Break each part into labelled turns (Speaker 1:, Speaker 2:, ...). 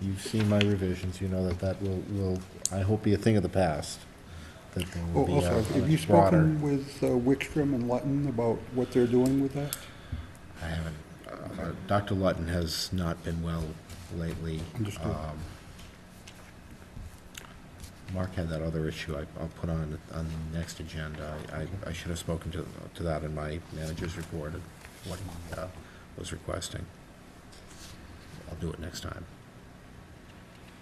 Speaker 1: You've seen my revisions, you know that that will, will, I hope be a thing of the past, that there will
Speaker 2: Oh,
Speaker 1: be
Speaker 2: Also,
Speaker 1: a-
Speaker 2: have you
Speaker 1: a broader.
Speaker 2: spoken with uh, Wickstrom and Lutton about what they're doing with that?
Speaker 1: I haven't, uh, Dr. Lutton has not been well lately.
Speaker 2: Understood.
Speaker 1: Um, Mark had that other issue I, I'll put on, on the next agenda. I, I- I should have spoken to, to that in my manager's report, of what he uh, was requesting. I'll do it next time,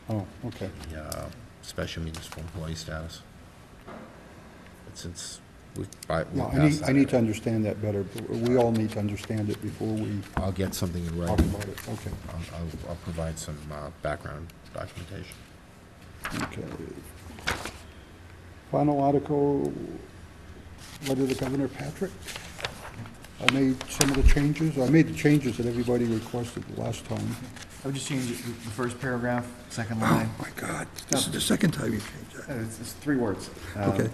Speaker 2: Oh, okay.
Speaker 1: the uh, special municipal employee status. But since we, I, we
Speaker 2: No, I
Speaker 1: passed
Speaker 2: need,
Speaker 1: that.
Speaker 2: I need to understand that better. We all need to understand it before we
Speaker 1: I'll get something in
Speaker 2: talk
Speaker 1: writing.
Speaker 2: about it. Okay.
Speaker 1: I'll, I'll, I'll provide some uh, background documentation.
Speaker 2: Okay. Final article, letter to Governor Patrick. I made some of the changes, I made the changes that everybody requested the last time.
Speaker 3: I would just change the the first paragraph, second line.
Speaker 4: Oh, My God, this is the second time you've changed
Speaker 3: Uh,
Speaker 4: that.
Speaker 3: It's, it's three words. Uh,
Speaker 4: Okay.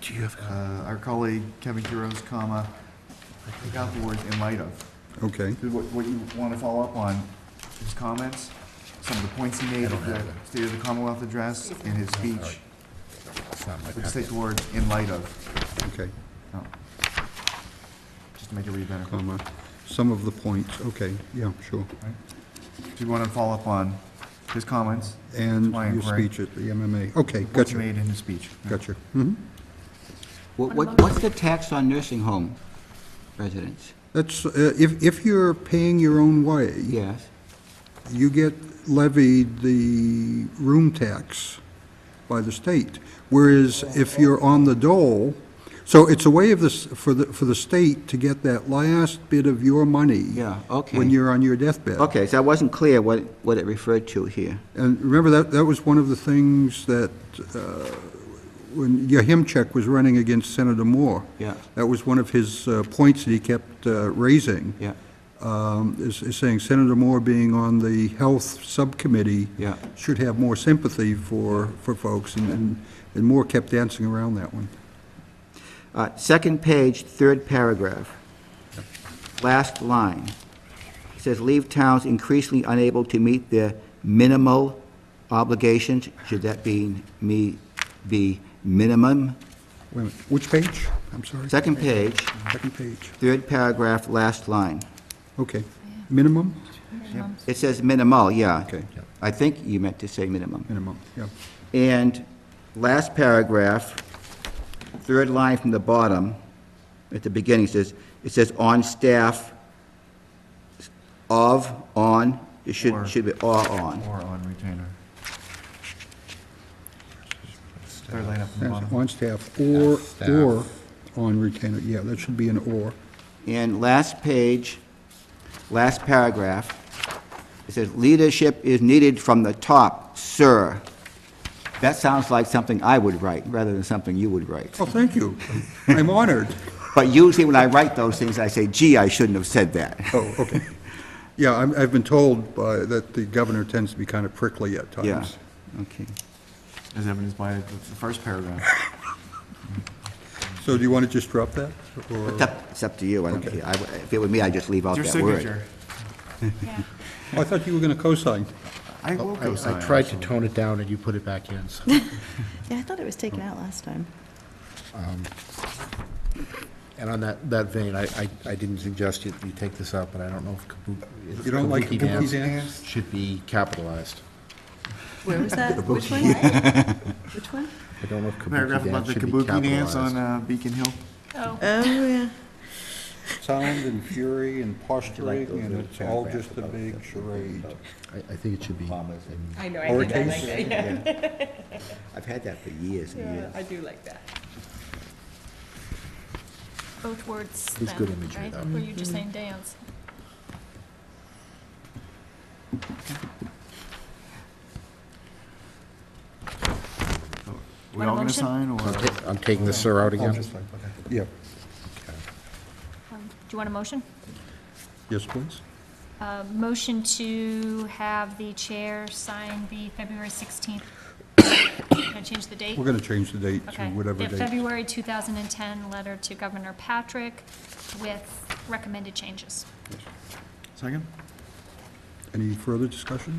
Speaker 4: Do you have?
Speaker 3: uh, Our colleague Kevin Kuros, comma, take out the words in light of.
Speaker 4: Okay.
Speaker 3: Because What, what you want to follow up on, his comments, some of the points he made at the State of the Commonwealth address in his speech,
Speaker 1: It's not my
Speaker 3: but
Speaker 1: packet.
Speaker 3: just take the words in light of,
Speaker 4: Okay,
Speaker 3: Oh. just to make it read better. Do
Speaker 4: comma, some of the points, okay, yeah, sure.
Speaker 3: you want to follow up on his comments?
Speaker 4: And
Speaker 3: my
Speaker 4: your
Speaker 3: inquiry,
Speaker 4: speech at the MMA, okay,
Speaker 3: What he
Speaker 4: gotcha,
Speaker 3: made in his speech.
Speaker 4: gotcha. Mhm.
Speaker 5: What, what- what's the tax on nursing home residents?
Speaker 4: That's, uh, if, if you're paying your own way,
Speaker 5: Yes,
Speaker 4: you get levied the room tax by the state. Whereas if you're on the dole, so it's a way of this, for the, for the state to get that last bit of your money.
Speaker 5: Yeah, okay.
Speaker 4: When you're on your deathbed.
Speaker 5: okay, so I wasn't clear what, what it referred to here.
Speaker 4: And remember, that, that was one of the things that, uh, when Yahimchek was running against Senator Moore.
Speaker 5: Yeah.
Speaker 4: That was one of his uh, points that he kept uh, raising.
Speaker 5: Yeah,
Speaker 4: um, Is is saying Senator Moore being on the Health Subcommittee.
Speaker 5: Yeah.
Speaker 4: Should have more sympathy for, for folks, and- and, and Moore kept dancing around that one.
Speaker 5: Uh, Second page, third paragraph, last line. It says, "Leave towns increasingly unable to meet their minimal obligations." Should that be, me, be minimum?
Speaker 4: Wait a minute, which page? I'm sorry.
Speaker 5: Second page,
Speaker 4: Second page,
Speaker 5: third paragraph, last line.
Speaker 4: okay. Minimum?
Speaker 5: It says minimal, yeah.
Speaker 4: Okay.
Speaker 5: I think you meant to say minimum.
Speaker 4: Minimum, yeah.
Speaker 5: And last paragraph, third line from the bottom, at the beginning says, it says on staff of, on, it
Speaker 3: Or.
Speaker 5: should, should be or on.
Speaker 3: Or on retainer. Third line up from the
Speaker 4: Yes,
Speaker 3: bottom.
Speaker 4: On staff or,
Speaker 1: Staff.
Speaker 4: or on retainer, yeah, that should be an or.
Speaker 5: And last page, last paragraph, it says leadership is needed from the top, sir. That sounds like something I would write rather than something you would write.
Speaker 4: Oh, thank you. I'm honored.
Speaker 5: But usually when I write those things, I say, gee, I shouldn't have said that.
Speaker 4: Oh, okay. Yeah, I'm, I've been told by, that the governor tends to be kind of prickly at
Speaker 5: Yeah,
Speaker 4: times.
Speaker 5: okay.
Speaker 3: As evidenced by the the first paragraph.
Speaker 4: So do you want to just drop that? or-
Speaker 5: It's up, it's up to you, I don't care. I w- If it were me, I'd just leave out
Speaker 3: Your
Speaker 5: that word.
Speaker 3: signature.
Speaker 4: Oh, I thought you were going to co-sign.
Speaker 3: I will
Speaker 1: I
Speaker 3: co-sign.
Speaker 1: I tried to tone it down and you put it back in, so.
Speaker 6: Yeah, I thought it was taken out last time.
Speaker 1: And on that, that vein, I, I, I didn't suggest you, you take this out, but I don't know if kabuki.
Speaker 4: You don't like kabuki dance?
Speaker 1: Should be capitalized.
Speaker 6: Where was that? Which one? Which one?
Speaker 1: I don't know if
Speaker 3: Paragraph
Speaker 1: kabuki
Speaker 3: about
Speaker 1: dance
Speaker 3: the
Speaker 1: should be
Speaker 3: kabuki dance on
Speaker 1: capitalized.
Speaker 3: uh, Beacon Hill.
Speaker 6: Oh, yeah.
Speaker 2: Sound and fury and posturing,
Speaker 1: those
Speaker 2: and
Speaker 1: little
Speaker 2: it's all
Speaker 1: paragraphs
Speaker 2: just a
Speaker 1: about
Speaker 2: big charade.
Speaker 1: I, I think it should be.
Speaker 7: I know, I think I like that, yeah.
Speaker 5: I've had that for years and
Speaker 7: Yeah,
Speaker 5: years.
Speaker 7: I do like that.
Speaker 8: both words
Speaker 1: It's good
Speaker 8: then,
Speaker 1: imagery,
Speaker 8: right?
Speaker 1: though.
Speaker 8: Were you just saying dance?
Speaker 3: We
Speaker 8: Want a
Speaker 3: all gonna
Speaker 8: motion?
Speaker 3: sign or?
Speaker 1: I'm taking the sir out again.
Speaker 4: Yeah,
Speaker 8: Um, Do you want a motion?
Speaker 4: yes, please.
Speaker 8: Uh, Motion to have the chair sign the February 16th. Can I change the date?
Speaker 4: We're going to change the date to
Speaker 8: Okay.
Speaker 4: whatever
Speaker 8: The
Speaker 4: date.
Speaker 8: February 2010 letter to Governor Patrick with recommended changes.
Speaker 3: Second?
Speaker 4: Any further discussion?